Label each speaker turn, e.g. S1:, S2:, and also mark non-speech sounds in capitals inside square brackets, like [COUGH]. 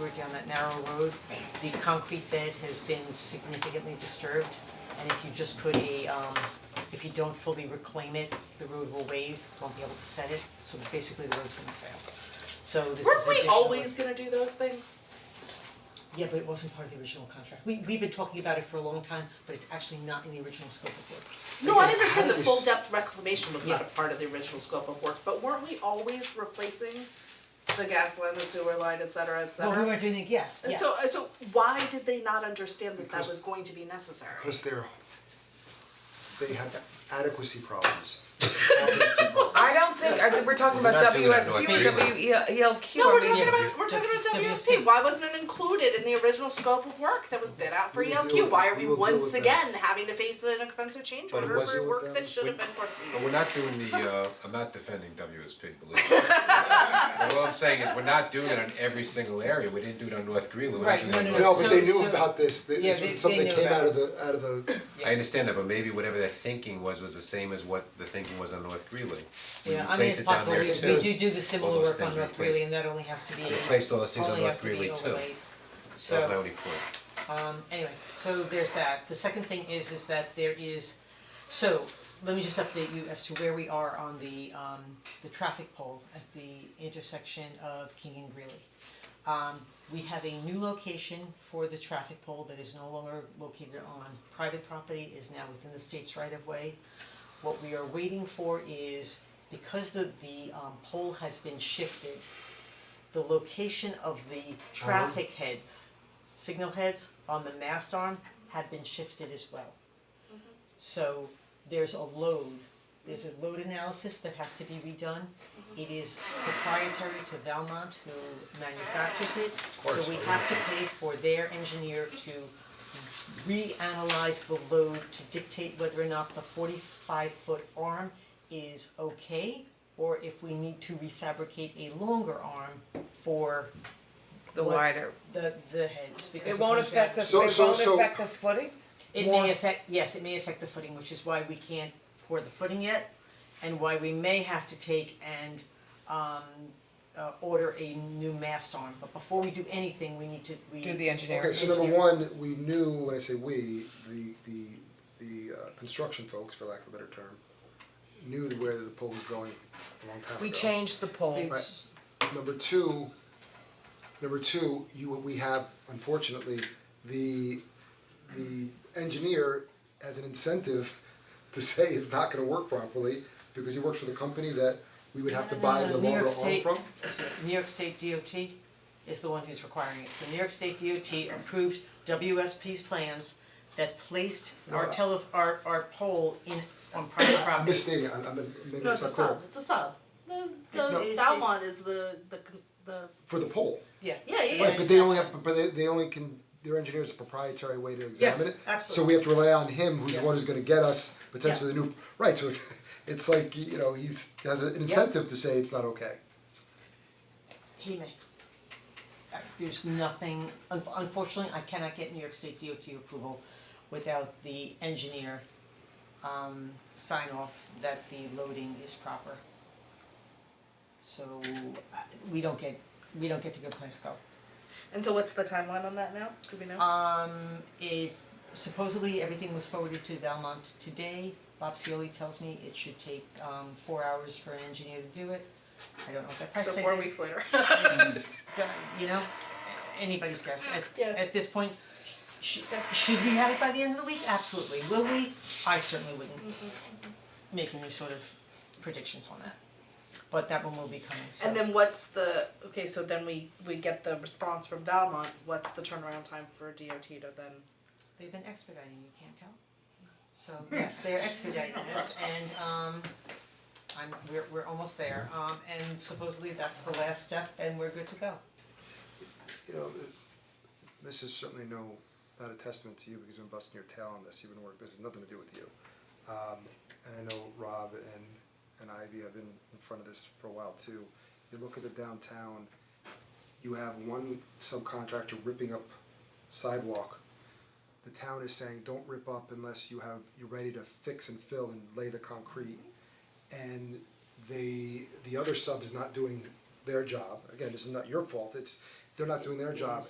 S1: over down that narrow road, the concrete bed has been significantly disturbed. And if you just put a, um, if you don't fully reclaim it, the road will wave, won't be able to set it, so basically the road's gonna fail. So this is
S2: Weren't we
S1: additional-
S2: always gonna do those things?
S1: Yeah, but it wasn't part of the original contract. We, we've been talking about it for a long time, but it's actually not in the original scope of work.
S2: No, I understand the
S3: Always.
S2: full depth reclamation was not a
S1: Yeah.
S2: part of the original scope of work, but weren't we always replacing the gas line, the sewer line, et cetera, et cetera?
S1: Well, we weren't doing it, yes,
S2: And
S1: yes.
S2: so, uh, so why did they not understand that that
S3: Because-
S2: was going to be necessary?
S3: Because they're, they have adequacy problems, adequacy problems.
S1: [LAUGHS]
S4: I don't think, I think we're talking
S5: We're
S4: about
S5: not doing it, no,
S4: WSU
S5: I
S4: or E WELQ.
S2: No, we're
S4: I mean,
S2: talking
S1: Yes.
S2: about, we're talking about
S1: W-
S2: WSP, why wasn't it included in the original scope of work that was bid out for
S3: We will
S2: ELQ?
S3: deal with
S2: Why
S3: this.
S2: are
S3: We
S2: we
S3: will deal
S2: once
S3: with that.
S2: again having to face an expensive change
S5: But it
S2: order for
S5: wasn't-
S2: work that should have
S5: we-
S2: been foreseen?
S5: But we're not doing
S1: [LAUGHS]
S5: the, uh, I'm not defending WSP, believe me. But what I'm saying is, we're not doing it on every single area, we didn't do it on North Greeley, we're
S1: Right,
S5: not doing it on
S1: no,
S5: North.
S1: no,
S3: No, but they
S1: So-
S3: knew
S1: so-
S3: about this, They-
S1: Yeah,
S3: this
S1: they-
S3: was something
S1: they
S3: that
S1: knew
S3: came
S1: about
S3: out of the, out of the,
S5: I understand that, but maybe whatever their thinking was, was the same as what the thinking was on North Greeley. We
S1: Yeah, I mean, it's
S5: replaced it down
S1: possible,
S5: there
S1: we,
S5: too.
S1: we do do the
S5: All
S1: similar
S5: those
S1: work on
S5: things
S1: North
S5: replaced.
S1: Greeley and that only has to be,
S5: Replaced all those things on
S1: only
S5: North
S1: has to
S5: Greeley
S1: be
S5: too.
S1: overlaid.
S5: That was my
S1: So,
S5: only point.
S1: um, anyway, so there's that. The second thing is, is that there is, so, let me just update you as to where we are on the, um, the traffic pole at the intersection of King and Greeley. Um, we have a new location for the traffic pole that is no longer located on private property, is now within the state's right of way. What we are waiting for is, because the, the, um, pole has been shifted, the location of the traffic heads, signal heads on the mast arm have been shifted as well. So there's a load, there's a load analysis that has to be redone. It is proprietary to Valmont who manufactures it, so we have to pay for their engineer to reanalyze the load to dictate whether or not the forty-five foot arm is okay or if we need to refabricate a longer arm for
S4: The
S1: What?
S4: wider,
S1: the the heads because
S4: it won't
S1: it's-
S4: affect the, it
S3: So- so-
S4: won't
S3: so-
S4: affect the footing?
S1: It
S4: More-
S1: may affect, yes, it may affect the footing, which is why we can't pour the footing yet and why we may have to take and um uh order a new mast arm, but before we do anything, we need to, we.
S4: Do the engineering.
S3: okay, so number one, we knew, when I say we, the, the, the uh, construction folks, for lack of a better term, knew where the pole was going a long time ago.
S4: We changed the pole.
S3: Right. Number two, number two, you, we have unfortunately, the, the engineer has an incentive to [LAUGHS] say it's not gonna work properly because he works for the company that we would have to buy the longer arm
S1: New York
S3: from.
S1: State, New York State DOT is the one who's requiring it, so New York State DOT approved WSP's plans that placed our
S3: Well, I-
S1: tele, our our pole in on private property.
S3: I'm misstating, it. I'm, I'm, maybe
S2: No, it's
S3: it's
S2: a
S3: not clear.
S2: sub, it's a sub. The,
S1: It's not-
S2: the,
S1: it's-
S2: that one is the, the, con- the,
S3: For the pole,
S1: Yeah.
S2: yeah, yeah,
S3: right,
S2: yeah.
S3: but they only have, but they, they only can, their engineer's a proprietary way to examine it. So
S1: absolutely.
S3: we have to rely on him, who's the
S1: Yes.
S3: one who's gonna get us potentially the new, right, so [LAUGHS] it's like, you know, he's, has an incentive to say it's not okay.
S1: He may. Uh, There's nothing, un- unfortunately, I cannot get New York State DOT approval without the engineer um sign off that the loading is proper. So uh, we don't get, we don't get to go Plansco.
S2: And so what's the timeline on that now? Do we know?
S1: Um, it supposedly everything was forwarded to Valmont today. Bob Cioli tells me it should take um four hours for an engineer to do it. I don't know what that price
S2: so
S1: tag is.
S2: four weeks later.
S1: Uh, you know, anybody's guess at
S2: Yes.
S1: at this point. Should, should we have it by the end of the week? Absolutely. Will we? I certainly wouldn't make any sort of predictions on that. But that one will be coming, so.
S2: and then what's the, okay, so then we, we get the response from Valmont, what's the turnaround time for DOT to then?
S1: They've been expediting, you can't tell. So yes,
S2: [LAUGHS]
S1: they're expediting this and um I'm, we're we're almost there. Um and supposedly that's the last step and we're good to go.
S3: you know, th- this is certainly no, not a testament to you because you've been busting your tail on this, you've been working, this has nothing to do with you. Um, and I know Rob and, and Ivy have been in front of this for a while too. You look at the downtown, you have one subcontractor ripping up sidewalk. The town is saying, don't rip up unless you have, you're ready to fix and fill and lay the concrete. And they, the other sub is not doing their job, again, this is not your fault, it's, they're not doing their job,